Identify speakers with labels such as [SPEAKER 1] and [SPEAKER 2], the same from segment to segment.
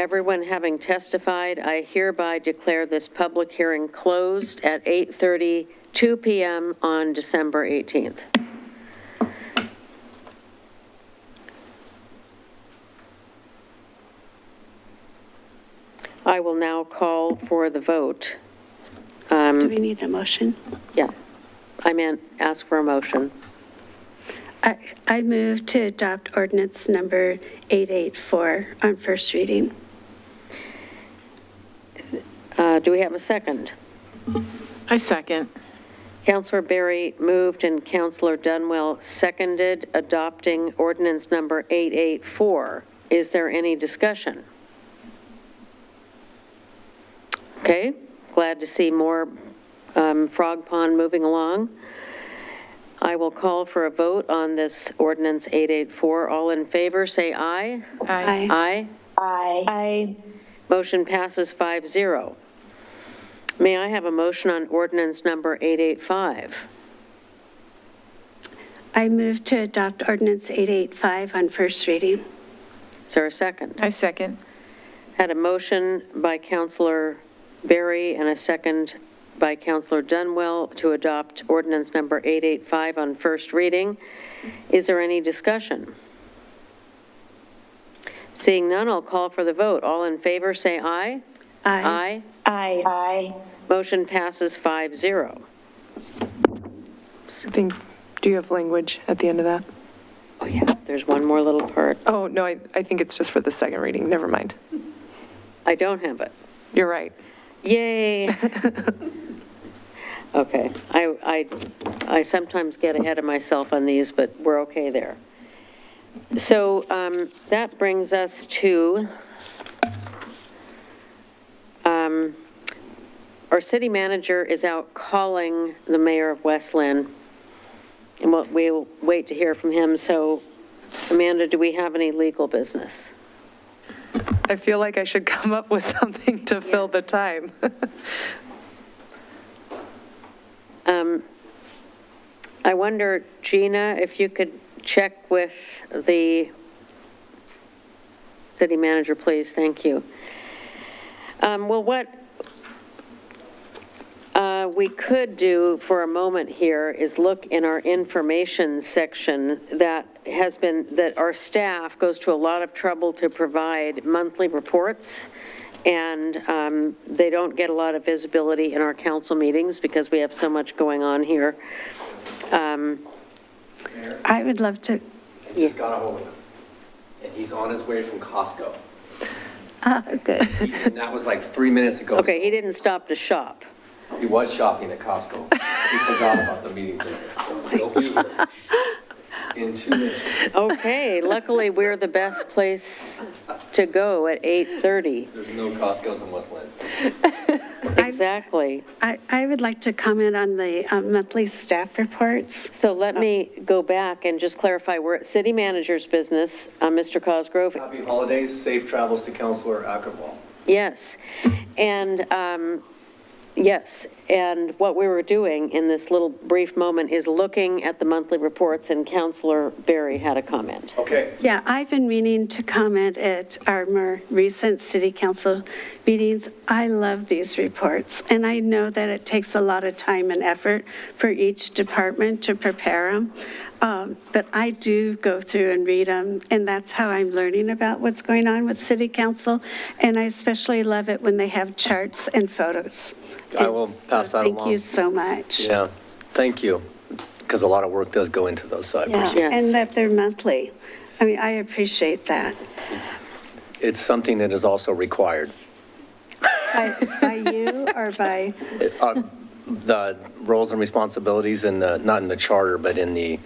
[SPEAKER 1] everyone having testified, I hereby declare this public hearing closed at 8:32 PM on December 18th. I will now call for the vote.
[SPEAKER 2] Do we need a motion?
[SPEAKER 1] Yeah, I meant ask for a motion.
[SPEAKER 2] I, I move to adopt ordinance number 884 on first reading.
[SPEAKER 1] Uh, Do we have a second?
[SPEAKER 3] I second.
[SPEAKER 1] Counselor Berry moved and Counselor Dunwell seconded, adopting ordinance number 884. Is there any discussion? Okay, glad to see more um, Frog Pond moving along. I will call for a vote on this ordinance 884. All in favor, say aye.
[SPEAKER 2] Aye.
[SPEAKER 1] Aye.
[SPEAKER 4] Aye.
[SPEAKER 1] Motion passes 5-0. May I have a motion on ordinance number 885?
[SPEAKER 2] I move to adopt ordinance 885 on first reading.
[SPEAKER 1] Is there a second?
[SPEAKER 3] I second.
[SPEAKER 1] Had a motion by Counselor Berry and a second by Counselor Dunwell to adopt ordinance number 885 on first reading. Is there any discussion? Seeing none, I'll call for the vote. All in favor, say aye. Aye.
[SPEAKER 4] Aye. Aye.
[SPEAKER 1] Motion passes 5-0.
[SPEAKER 5] I think, do you have language at the end of that?
[SPEAKER 1] Oh, yeah, there's one more little part.
[SPEAKER 5] Oh, no, I, I think it's just for the second reading, never mind.
[SPEAKER 1] I don't have it.
[SPEAKER 5] You're right.
[SPEAKER 1] Yay. Okay, I, I, I sometimes get ahead of myself on these, but we're okay there. So um, that brings us to um, our city manager is out calling the mayor of Westland, and what- we'll wait to hear from him. So Amanda, do we have any legal business?
[SPEAKER 5] I feel like I should come up with something to fill the time.
[SPEAKER 1] I wonder, Gina, if you could check with the city manager, please, thank you. Um, Well, what uh, we could do for a moment here is look in our information section that has been, that our staff goes to a lot of trouble to provide monthly reports, and um, they don't get a lot of visibility in our council meetings because we have so much going on here.
[SPEAKER 2] I would love to,
[SPEAKER 6] I just got a hold of him, and he's on his way from Costco.
[SPEAKER 2] ah, good.
[SPEAKER 6] And that was like three minutes ago.
[SPEAKER 1] Okay, he didn't stop to shop.
[SPEAKER 6] He was shopping at Costco. He forgot about the meeting today.
[SPEAKER 2] Oh
[SPEAKER 6] He'll be here in two minutes.
[SPEAKER 1] Okay, luckily, we're the best place to go at 8:30.
[SPEAKER 6] There's no Costco's in Westland.
[SPEAKER 1] Exactly.
[SPEAKER 2] I, I would like to comment on the um, monthly staff reports.
[SPEAKER 1] So let me go back and just clarify, we're at city manager's business, uh, Mr. Cosgrove.
[SPEAKER 6] Happy holidays, safe travels to Counselor Ackerwall.
[SPEAKER 1] Yes, and, um, yes, and what we were doing in this little brief moment is looking at the monthly reports, and Counselor Berry had a comment.
[SPEAKER 6] Okay,
[SPEAKER 2] Yeah, I've been meaning to comment at our more recent city council meetings. I love these reports, and I know that it takes a lot of time and effort for each department to prepare them. But I do go through and read them, and that's how I'm learning about what's going on with city council. And I especially love it when they have charts and photos.
[SPEAKER 6] I will
[SPEAKER 2] And so
[SPEAKER 6] pass that
[SPEAKER 2] Thank you
[SPEAKER 6] along.
[SPEAKER 2] so much.
[SPEAKER 6] yeah, thank you, because a lot of work does go into those, so I
[SPEAKER 2] Yeah,
[SPEAKER 6] appreciate it.
[SPEAKER 1] Yes.
[SPEAKER 2] And that they're monthly. I mean, I appreciate that.
[SPEAKER 6] It's something that is also required.
[SPEAKER 2] By by you or by?
[SPEAKER 6] Uh, The roles and responsibilities in the, not in the charter, but in the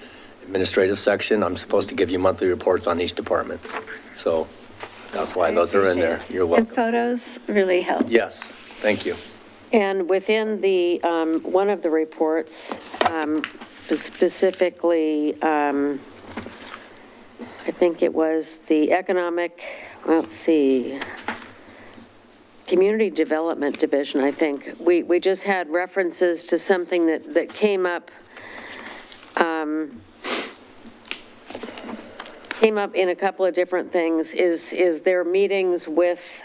[SPEAKER 6] administrative section, I'm supposed to give you monthly reports on each department. So that's why those are in there. You're
[SPEAKER 2] And
[SPEAKER 6] welcome.
[SPEAKER 2] photos really help.
[SPEAKER 6] Yes, thank you.
[SPEAKER 1] And within the, um, one of the reports, um, specifically, um, I think it was the economic, let's see, Community Development Division, I think. We, we just had references to something that, that came up. um, came up in a couple of different things, is, is their meetings with